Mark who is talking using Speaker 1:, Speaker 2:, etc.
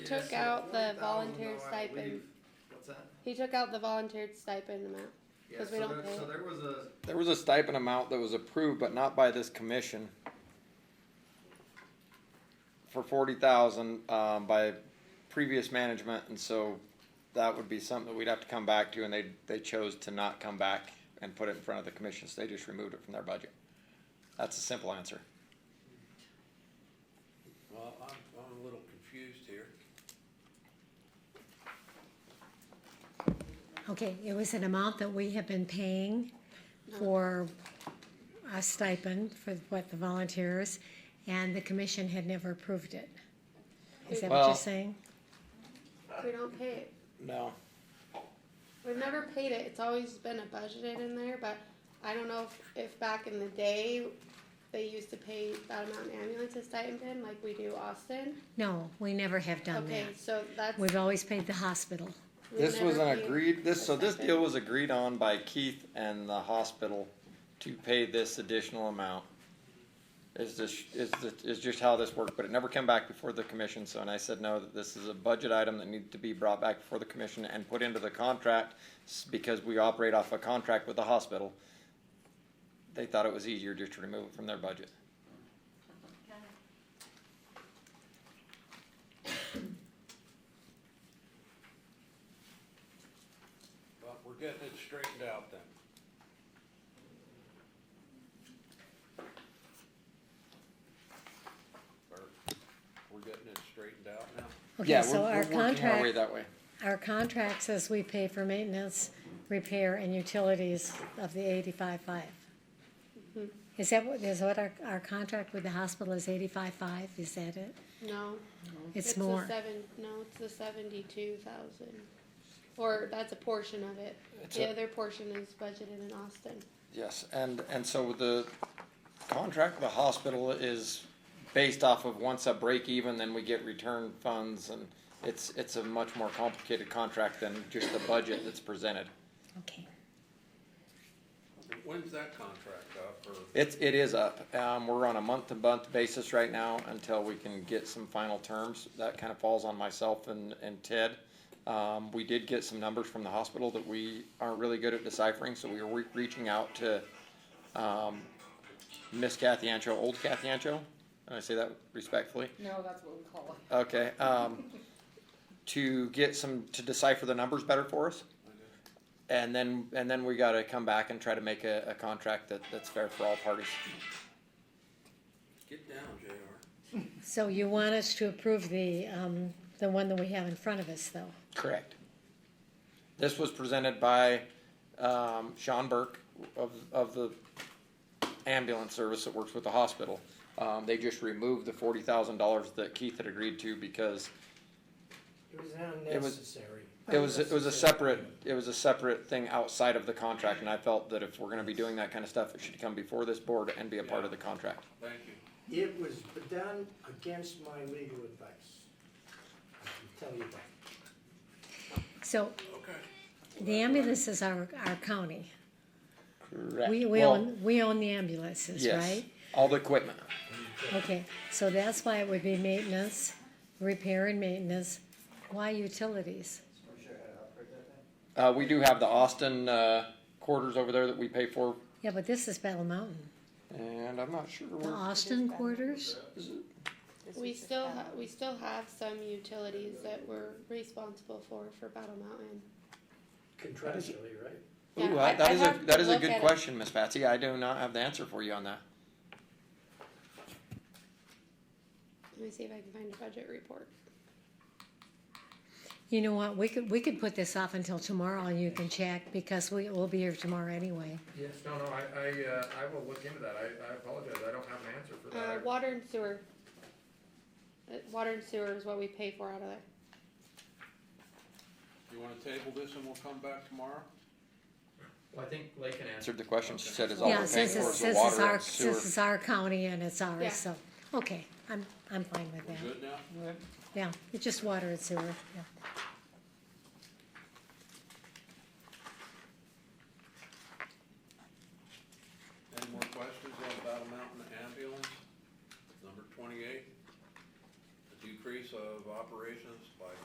Speaker 1: took out the volunteer stipend.
Speaker 2: What's that?
Speaker 1: He took out the volunteer stipend amount.
Speaker 2: Yeah,
Speaker 1: 'Cause we
Speaker 2: so
Speaker 1: don't
Speaker 2: there,
Speaker 1: pay.
Speaker 2: so there was a,
Speaker 3: There was a stipend amount that was approved, but not by this commission. For forty thousand, um, by previous management, and so that would be something that we'd have to come back to, and they, they chose to not come back and put it in front of the commission, so they just removed it from their budget. That's a simple answer.
Speaker 4: Well, I'm, I'm a little confused here.
Speaker 5: Okay, it was an amount that we have been paying for a stipend for what the volunteers, and the commission had never approved it. Is that what
Speaker 3: Well-
Speaker 5: you're saying?
Speaker 1: We don't pay it.
Speaker 3: No.
Speaker 1: We've never paid it. It's always been a budgeted in there, but I don't know if, if back in the day they used to pay that amount in ambulance stipend like we do Austin.
Speaker 5: No, we never have done
Speaker 1: Okay,
Speaker 5: that.
Speaker 1: so that's.
Speaker 5: Oh, We've always paid the hospital.
Speaker 1: we've
Speaker 3: This was
Speaker 1: never
Speaker 3: an
Speaker 1: paid
Speaker 3: agreed, this, so this
Speaker 1: stipend.
Speaker 3: deal was agreed on by Keith and the hospital to pay this additional amount. Is this, is the, is just how this worked, but it never came back before the commission, so, and I said, no, that this is a budget item that needed to be brought back before the commission and put into the contract, s- because we operate off a contract with the hospital. They thought it was easier just to remove it from their budget.
Speaker 4: Well, we're getting it straightened out then. Or, we're getting it straightened out now?
Speaker 5: Okay,
Speaker 3: Yeah,
Speaker 5: so
Speaker 3: we're-
Speaker 5: our
Speaker 3: we're working our way
Speaker 5: contract,
Speaker 3: That way.
Speaker 5: our contract says we pay for maintenance, repair, and utilities of the eighty-five-five.
Speaker 1: Mm-hmm.
Speaker 5: Is that what, is what our, our contract with the hospital is eighty-five-five, is that it?
Speaker 1: No.
Speaker 5: It's
Speaker 1: the
Speaker 5: more.
Speaker 1: Seven, no, it's the seventy-two thousand. Or that's a portion of it.
Speaker 3: It's
Speaker 1: The
Speaker 3: a-
Speaker 1: other portion is budgeted in Austin.
Speaker 3: Yes, and, and so the contract with the hospital is based off of once a break even, then we get return funds and it's, it's a much more complicated contract than just the budget that's presented.
Speaker 5: Okay.
Speaker 4: When's that contract up, or?
Speaker 3: It's, it is up. Um, we're on a month-to-month basis right now until we can get some final terms. That kind of falls on myself and, and Ted. Um, we did get some numbers from the hospital that we aren't really good at deciphering, so we were re- reaching out to, um, Miss Kathy Ancho, old Kathy Ancho, and I say that respectfully.
Speaker 6: No, that's what we call it.
Speaker 3: Okay, um, to get some, to decipher the numbers better for us. And then, and then we gotta come back and try to make a, a contract that, that's fair for all parties.
Speaker 4: Get down, JR.
Speaker 5: So you want us to approve the, um, the one that we have in front of us, though?
Speaker 3: Correct. This was presented by, um, Sean Burke of, of the ambulance service that works with the hospital. Um, they just removed the forty thousand dollars that Keith had agreed to because
Speaker 7: It was
Speaker 3: was-
Speaker 7: unnecessary.
Speaker 3: It was, it was a separate, it was a separate thing outside of the contract, and I felt that if we're gonna be doing that kind of stuff, it should come before this board and be a part of the contract.
Speaker 4: Thank you.
Speaker 7: It was done against my legal advice. I can tell you that.
Speaker 5: So
Speaker 4: Okay.
Speaker 5: the ambulances are our county.
Speaker 3: Correct.
Speaker 5: We, we own, we own the ambulances, right?
Speaker 3: All the equipment,
Speaker 5: Okay, so that's why it would be maintenance, repair and maintenance. Why utilities?
Speaker 3: uh, we do have the Austin, uh, quarters over there that we pay for,
Speaker 5: Yeah, but this is Battle Mountain.
Speaker 3: and I'm not sure
Speaker 5: The
Speaker 3: where,
Speaker 5: Austin quarters?
Speaker 1: We still, ha- we still have some utilities that we're responsible for, for Battle Mountain.
Speaker 7: Contractually, right?
Speaker 1: Yeah,
Speaker 3: ooh,
Speaker 1: I-
Speaker 3: I- that
Speaker 1: I'd
Speaker 3: is a,
Speaker 1: have to
Speaker 3: that is a
Speaker 1: look at
Speaker 3: good
Speaker 1: it.
Speaker 3: question, Miss Patsy, I do not have the answer for you on that.
Speaker 1: Let me see if I can find a budget report.
Speaker 5: You know what, we could, we could put this off until tomorrow and you can check because we will be here tomorrow anyway.
Speaker 8: Yes, no, no, I, I, uh, I will look into that, I, I apologize, I don't have an answer for
Speaker 1: Uh,
Speaker 8: that.
Speaker 1: water and sewer. Uh, Water and sewer is what we pay for out of there.
Speaker 4: You wanna table this and we'll come back tomorrow?
Speaker 8: Well, I think Lake can
Speaker 3: Answered the question, she said is all we're
Speaker 5: Yeah,
Speaker 3: paying for
Speaker 5: since it's,
Speaker 3: is the
Speaker 5: since it's
Speaker 3: water
Speaker 5: our,
Speaker 3: and sewer.
Speaker 5: since it's our county and it's
Speaker 1: Yeah.
Speaker 5: ours, so, okay, I'm, I'm fine with
Speaker 4: We're
Speaker 5: that.
Speaker 4: good now?
Speaker 5: Yeah, it's just water and sewer, yeah.